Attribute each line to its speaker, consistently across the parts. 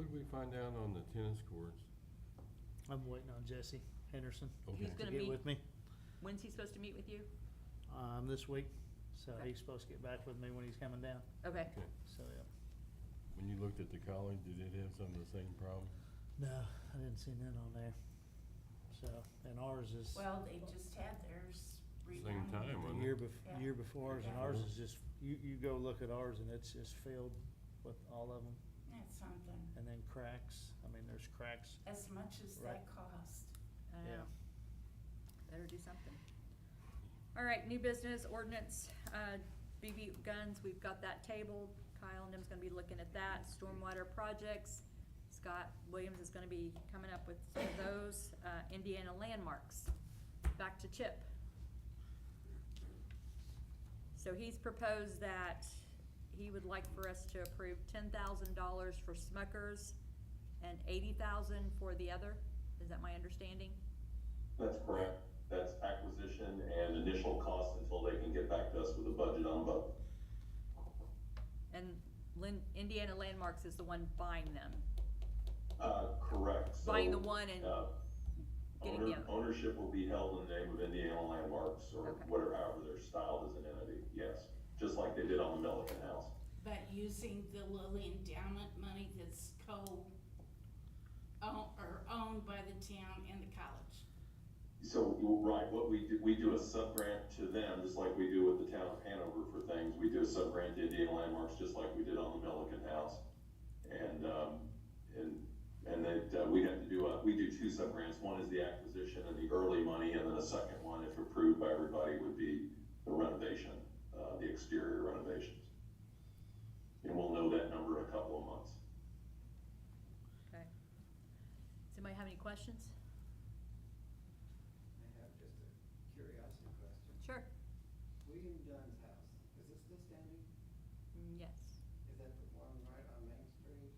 Speaker 1: did we find out on the tennis courts?
Speaker 2: I'm waiting on Jesse Henderson
Speaker 1: Okay.
Speaker 3: He's
Speaker 2: to
Speaker 3: gonna
Speaker 2: get
Speaker 3: meet,
Speaker 2: with me,
Speaker 3: when's he supposed to meet with you?
Speaker 2: um, this week. So
Speaker 3: Okay.
Speaker 2: he's supposed to get back with me when he's coming down,
Speaker 3: Okay,
Speaker 1: Okay.
Speaker 2: so, yeah.
Speaker 1: When you looked at the college, did it have some of the same problems?
Speaker 2: No, I didn't see none on there. So, and ours is,
Speaker 4: Well, they just had theirs
Speaker 1: Same
Speaker 4: redone.
Speaker 1: time,
Speaker 2: the
Speaker 1: wasn't
Speaker 2: year
Speaker 1: it?
Speaker 2: bef-
Speaker 4: Yeah.
Speaker 2: year before ours, and ours is just, you, you go look at ours and it's just filled with all of them.
Speaker 4: That's something.
Speaker 2: And then cracks, I mean, there's cracks.
Speaker 4: As much as
Speaker 2: Right.
Speaker 4: that cost.
Speaker 3: I
Speaker 2: Yeah.
Speaker 3: know. Um, Better do something. All right, new business ordinance, uh, BB guns, we've got that tabled. Kyle and them's gonna be looking at that, stormwater projects. Scott Williams is gonna be coming up with some of those, uh, Indiana landmarks. Back to Chip. So he's proposed that he would like for us to approve ten thousand dollars for Smuckers and eighty thousand for the other. Is that my understanding?
Speaker 5: That's correct. That's acquisition and initial cost until they can get back to us with a budget on both.
Speaker 3: And Lin- Indiana Landmarks is the one buying them.
Speaker 5: Uh, correct. So,
Speaker 3: Buying the one and
Speaker 5: uh,
Speaker 3: getting
Speaker 5: owner-
Speaker 3: the other.
Speaker 5: Ownership will be held in the name of Indiana Landmarks or
Speaker 3: Okay.
Speaker 5: whatever, however they're styled as an entity, yes. Just like they did on the Milliken House.
Speaker 4: But using the Lilly endowment money that's co, own- or owned by the town and the college.
Speaker 5: So, right, what we do, we do a sub-grant to them, just like we do with the town of Hanover for things. We do a sub-grant to Indiana Landmarks, just like we did on the Milliken House. And, um, and, and that, uh, we have to do, a- we do two sub-grants. One is the acquisition and the early money, and then a second one, if approved by everybody, would be the renovation, uh, the exterior renovations. And we'll know that number in a couple of months.
Speaker 3: Okay. Does anybody have any questions?
Speaker 6: I have just a curiosity question.
Speaker 3: Sure.
Speaker 6: William Dunn's house, is it still standing?
Speaker 3: Mm, Yes.
Speaker 6: Is that the one right on Main Street?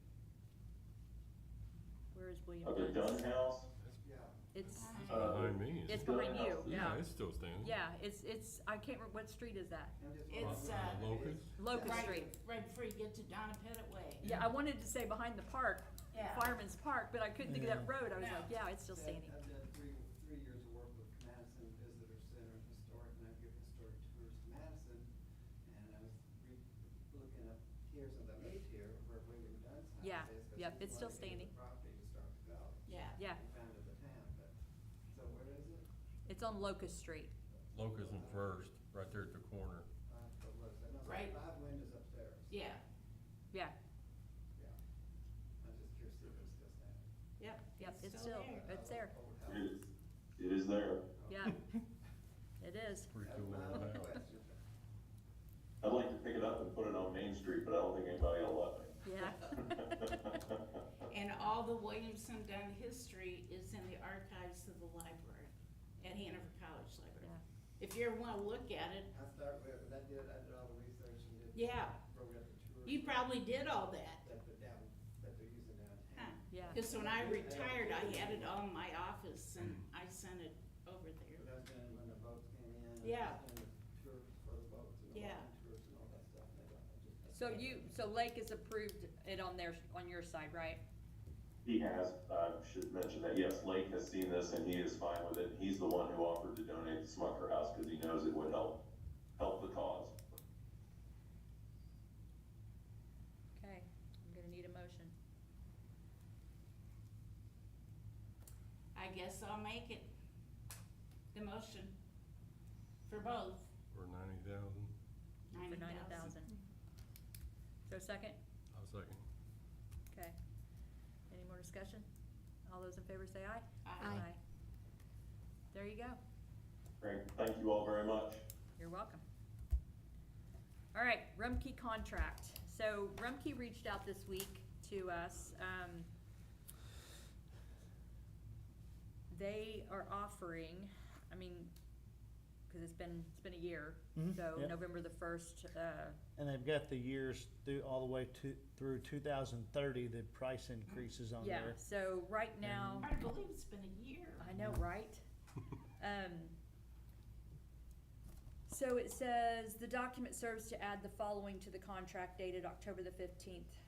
Speaker 3: Where is William?
Speaker 5: Uh, the Dunn
Speaker 3: Dunn's?
Speaker 5: House?
Speaker 6: Yeah.
Speaker 3: It's,
Speaker 5: uh,
Speaker 1: Behind me.
Speaker 3: it's
Speaker 5: Dunn
Speaker 3: behind you,
Speaker 5: House.
Speaker 1: Yeah,
Speaker 3: yeah.
Speaker 1: it's still standing.
Speaker 3: Yeah, it's, it's, I can't remember, what street is that?
Speaker 6: I'm just
Speaker 4: It's,
Speaker 6: wondering.
Speaker 4: uh,
Speaker 1: Locust?
Speaker 3: Locust
Speaker 4: Right-
Speaker 3: Street.
Speaker 4: Right before you get to Donna Pettit Way.
Speaker 3: Yeah, I wanted to say behind the park,
Speaker 4: Yeah.
Speaker 3: Fireman's Park, but I couldn't think of that
Speaker 2: Yeah.
Speaker 3: road. I was
Speaker 4: No.
Speaker 3: like, yeah, it's still
Speaker 6: I've-
Speaker 3: standing.
Speaker 6: I've done three, three years of work with Madison Visitor Center and Historic, and I've given historic tours to Madison. And I was re, looking up here since I moved here, where William Dunn's house is.
Speaker 3: Yeah,
Speaker 6: 'cause
Speaker 3: yep,
Speaker 6: he
Speaker 3: it's still standing.
Speaker 6: wanted to give the Property to start to develop.
Speaker 4: Yeah.
Speaker 3: Yeah.
Speaker 6: He founded the town, but, so where is it?
Speaker 3: It's on Locust Street.
Speaker 1: Locust and First, right there at the corner.
Speaker 6: Five, what was it? No, it's
Speaker 4: Right.
Speaker 6: Five windows upstairs.
Speaker 4: Yeah,
Speaker 3: Yeah,
Speaker 6: Yeah. I'm just curious if it's still standing.
Speaker 4: yep.
Speaker 3: Yep, it's still-
Speaker 4: there.
Speaker 3: It's there.
Speaker 6: Old
Speaker 5: It
Speaker 6: house.
Speaker 5: is, it is there.
Speaker 3: yeah. It is.
Speaker 1: Pretty
Speaker 6: That's
Speaker 1: cool.
Speaker 6: my
Speaker 1: old
Speaker 6: only
Speaker 1: house.
Speaker 6: question.
Speaker 5: I'd like to pick it up and put it on Main Street, but I don't think anybody will let me.
Speaker 3: Yeah.
Speaker 4: And all the Williamson Dunn history is in the archives of the library, at Hanover College Library.
Speaker 3: Yeah.
Speaker 4: If you ever want to look at it,
Speaker 6: I started with, because I did, I did all the research and did.
Speaker 4: Yeah.
Speaker 6: Broke up the tours.
Speaker 4: you probably did all that.
Speaker 6: That they're down, that they're using
Speaker 4: huh?
Speaker 6: downtown.
Speaker 3: Yeah.
Speaker 4: Because when I retired, I had it all in my office and I sent it over
Speaker 6: Because
Speaker 4: there.
Speaker 6: That's when, when the boats came in. and
Speaker 4: Yeah.
Speaker 6: that's when the Tours for the boats and the
Speaker 4: Yeah.
Speaker 6: walking tours and all that stuff. and I just-
Speaker 3: So you, so Lake has approved it on their, on your side, right?
Speaker 5: He has, I should mention that, yes, Lake has seen this and he is fine with it. He's the one who offered to donate the Smucker House because he knows it would help, help the cause.
Speaker 3: Okay, I'm gonna need a motion.
Speaker 4: I guess I'll make it, the motion, for both,
Speaker 1: Or ninety thousand.
Speaker 3: For
Speaker 4: ninety
Speaker 3: ninety
Speaker 4: thousand.
Speaker 3: thousand. So second?
Speaker 1: I'll second.
Speaker 3: Okay. Any more discussion? All those in favor say aye.
Speaker 4: Aye.
Speaker 3: There you go.
Speaker 5: Great, thank you all very much.
Speaker 3: You're welcome. All right, Rumkey contract. So Rumkey reached out this week to us. Um, They are offering, I mean, because it's been, it's been a year,
Speaker 4: Mm-hmm.
Speaker 2: Mhm,
Speaker 3: so
Speaker 2: yeah.
Speaker 3: November the first, uh,
Speaker 2: And they've got the years through, all the way to, through two thousand thirty, the price increases on
Speaker 3: yeah,
Speaker 2: there.
Speaker 3: so right now.
Speaker 4: Hard to believe it's been a year.
Speaker 3: I know, right? Um, so it says, the document serves to add the following to the contract dated October the fifteenth,